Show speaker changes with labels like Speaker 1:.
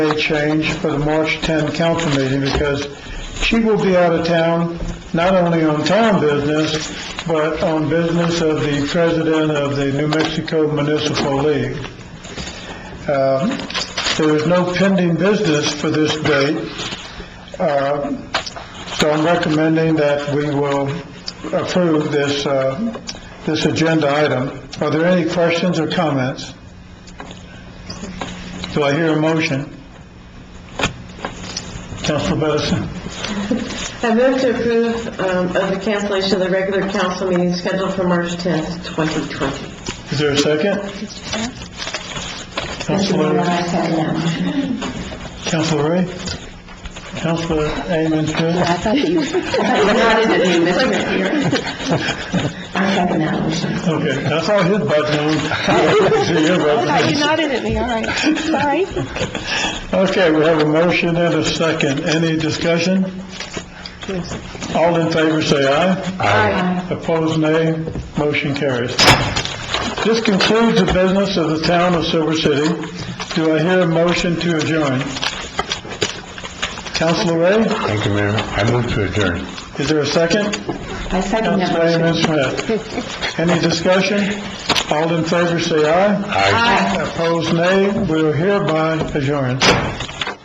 Speaker 1: a change for the March 10 council meeting because she will be out of town, not only on town business, but on business of the president of the New Mexico Municipal League. Um, There is no pending business for this date, uh, so I'm recommending that we will approve this, uh, this agenda item. Are there any questions or comments? Do I hear a motion? Council Madison?
Speaker 2: I move to approve um, of the cancellation of the regular council meeting scheduled for March 10th, 2020.
Speaker 1: Is there a second? Councilor, Councilor Ray? Councilor Amon Smith?
Speaker 3: I thought that you, I second that motion.
Speaker 1: Okay, that's all his button on. I didn't see your button.
Speaker 3: you nodded at me, all right. Sorry.
Speaker 1: Okay, we have a motion and a second. Any discussion? All in favor, say aye.
Speaker 3: Aye.
Speaker 1: Opposed, nay. Motion carries. This concludes the business of the town of Silver City. Do I hear a motion to adjourn? Councilor Ray,
Speaker 4: Thank you, Mayor. I move to adjourn.
Speaker 1: is there a second?
Speaker 3: I second that
Speaker 1: Councilor
Speaker 3: motion.
Speaker 1: Raymond Smith. Any discussion? All in favor, say aye.
Speaker 4: Aye.
Speaker 1: Opposed, nay. We are hereby adjourned.